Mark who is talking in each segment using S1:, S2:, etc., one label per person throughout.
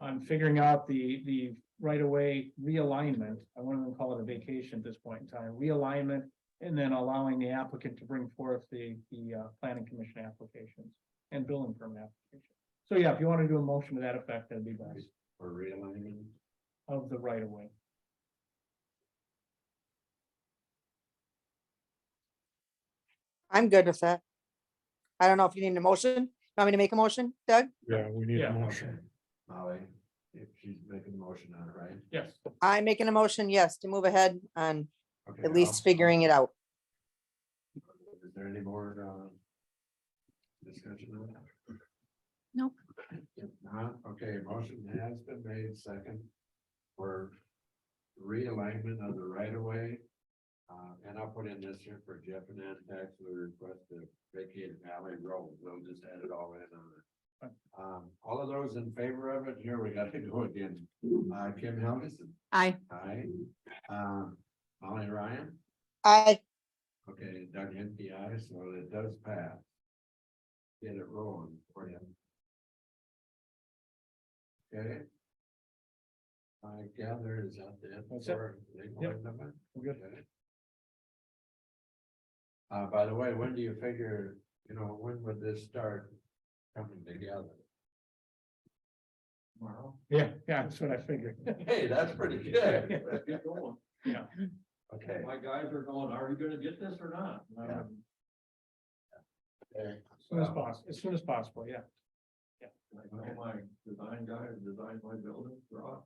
S1: on figuring out the, the right-of-way realignment. I wouldn't even call it a vacation at this point in time, realignment. And then allowing the applicant to bring forth the, the, uh, planning commission applications and building permit application. So yeah, if you want to do a motion to that effect, that'd be best
S2: or realigning.
S1: of the right-of-way.
S3: I'm good with that. I don't know if you need a motion. Want me to make a motion, Doug?
S4: Yeah, we need
S1: Yeah.
S4: a motion.
S2: Molly, if she's making a motion on it, right?
S1: Yes,
S3: I'm making a motion, yes, to move ahead on
S2: Okay,
S3: at
S2: I'll-
S3: least figuring it out.
S2: Is there any more, uh? Discussion on that?
S5: Nope.
S2: If not, okay, motion has been made second for realignment of the right of way. Uh, and I'll put in this here for Jeff and Ann Tax, we request to vacate Valley Road, we'll just add it all in on it. Um, all of those in favor of it, here we gotta go again, uh, Kim Helgeson,
S5: Aye.
S2: aye, um, Molly Ryan.
S3: I,
S2: Okay, Doug hit the eye, so it does pass. Get it rolling for you. Okay. I gather is out there.
S1: That's it. Yep. we're good.
S2: Uh, by the way, when do you figure, you know, when would this start coming together? Tomorrow.
S1: Yeah, yeah, that's what I figured.
S2: Hey, that's pretty good.
S1: Let's
S2: get going.
S1: Yeah.
S2: Okay.
S1: guys are going, are you gonna get this or not?
S2: Yeah. okay,
S1: Um, As soon as
S2: so-
S1: possible, as soon as possible, yeah.
S2: Like, my design guy who designed my building, Rob.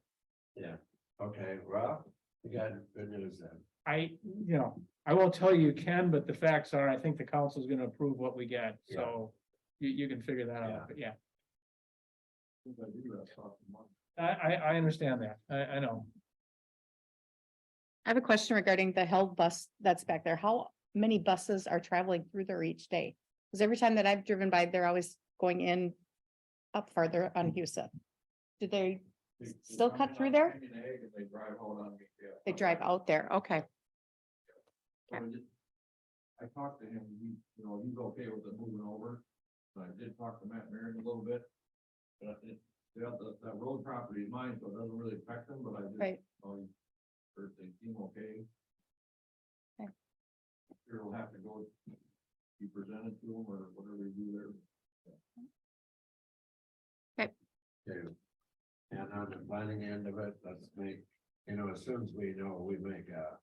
S2: Yeah, okay, Rob, you got good news then.
S1: I, you know, I will tell you can, but the facts are, I think the council's gonna approve what we get,
S2: Yeah.
S1: so you, you can figure that
S2: Yeah.
S1: out, but yeah. I, I, I understand that, I, I know.
S5: I have a question regarding the held bus that's back there. How many buses are traveling through there each day? Because every time that I've driven by, they're always going in up farther on Husa. Do they, Still cut through there?
S2: They drive out on me, yeah.
S5: they drive out there? Okay,
S2: So I just- I talked to him, he, you know, he's okay with it moving over, so I did talk to Matt Marion a little bit. But it, yeah, the, that road property is mine, so it doesn't really affect him, but I just.
S5: Right.
S2: um, Heard they seem okay.
S5: Okay.
S2: Sure will have to go, be presented to him or whatever you do there.
S5: Okay.
S2: Okay. And on the planning end of it, let's make, you know, as soon as we know, we make a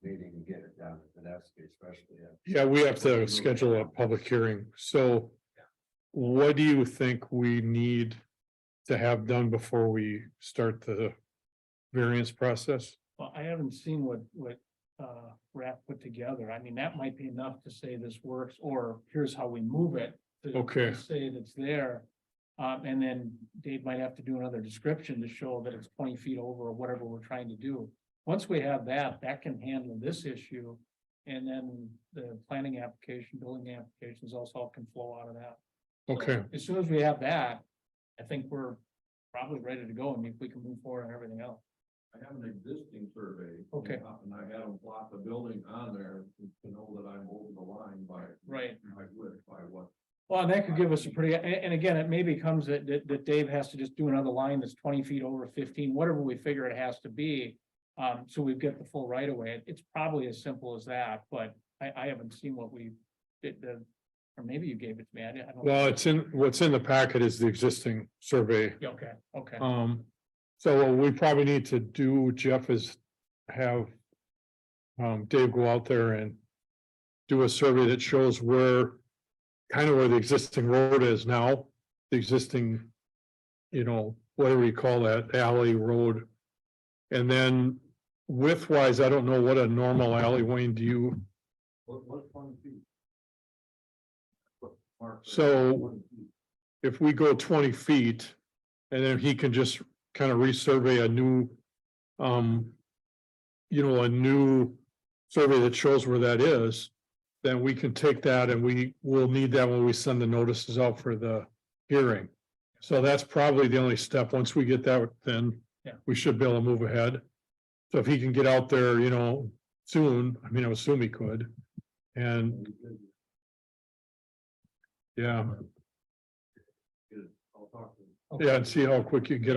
S2: meeting and get it done, but that's especially. uh,
S4: Yeah, we have to schedule a public hearing, so. What do you think we need to have done before we start the variance process?
S1: Well, I haven't seen what, what, uh, Rap put together, I mean, that might be enough to say this works, or here's how we move it. to- to
S4: Okay.
S1: Say that's there, um, and then Dave might have to do another description to show that it's twenty feet over or whatever we're trying to do. Once we have that, that can handle this issue, and then the planning application, building applications also can flow out of that.
S4: Okay,
S1: As soon as we have that, I think we're probably ready to go, and if we can move forward on everything else.
S2: I have an existing survey.
S1: Okay.
S2: And I had them plot the building on there to know that I'm over the line by.
S1: Right.
S2: By what, by what.
S1: Well, and that could give us a pretty, and, and again, it may becomes that, that, that Dave has to just do another line that's twenty feet over fifteen, whatever we figure it has to be. Um, so we get the full right of way. It's probably as simple as that, but I, I haven't seen what we did, the, or maybe you gave it to me. I didn't- I don't.
S4: well, it's in, what's in the packet is the existing survey.
S1: Yeah, Okay, okay.
S4: Um, so what we probably need to do, Jeff, is have. Um, Dave go out there and do a survey that shows where, kind of where the existing road is now, the existing. You know, whatever you call that alley road. And then width wise, I don't know what a normal alley, Wayne, do you,
S2: What, what's twenty feet? What mark there?
S4: So-
S2: 20 feet.
S4: if we go twenty feet. And then he can just kind of resurvey a new, um. You know, a new survey that shows where that is. Then we can take that and we will need that when we send the notices out for the hearing. So that's probably the only step. Once we get that, then
S1: Yeah.
S4: we should be able to move ahead. So if he can get out there, you know, soon, I mean, I assume he could. And, yeah,
S2: I'll talk to.
S4: yeah, and see how quick you can get him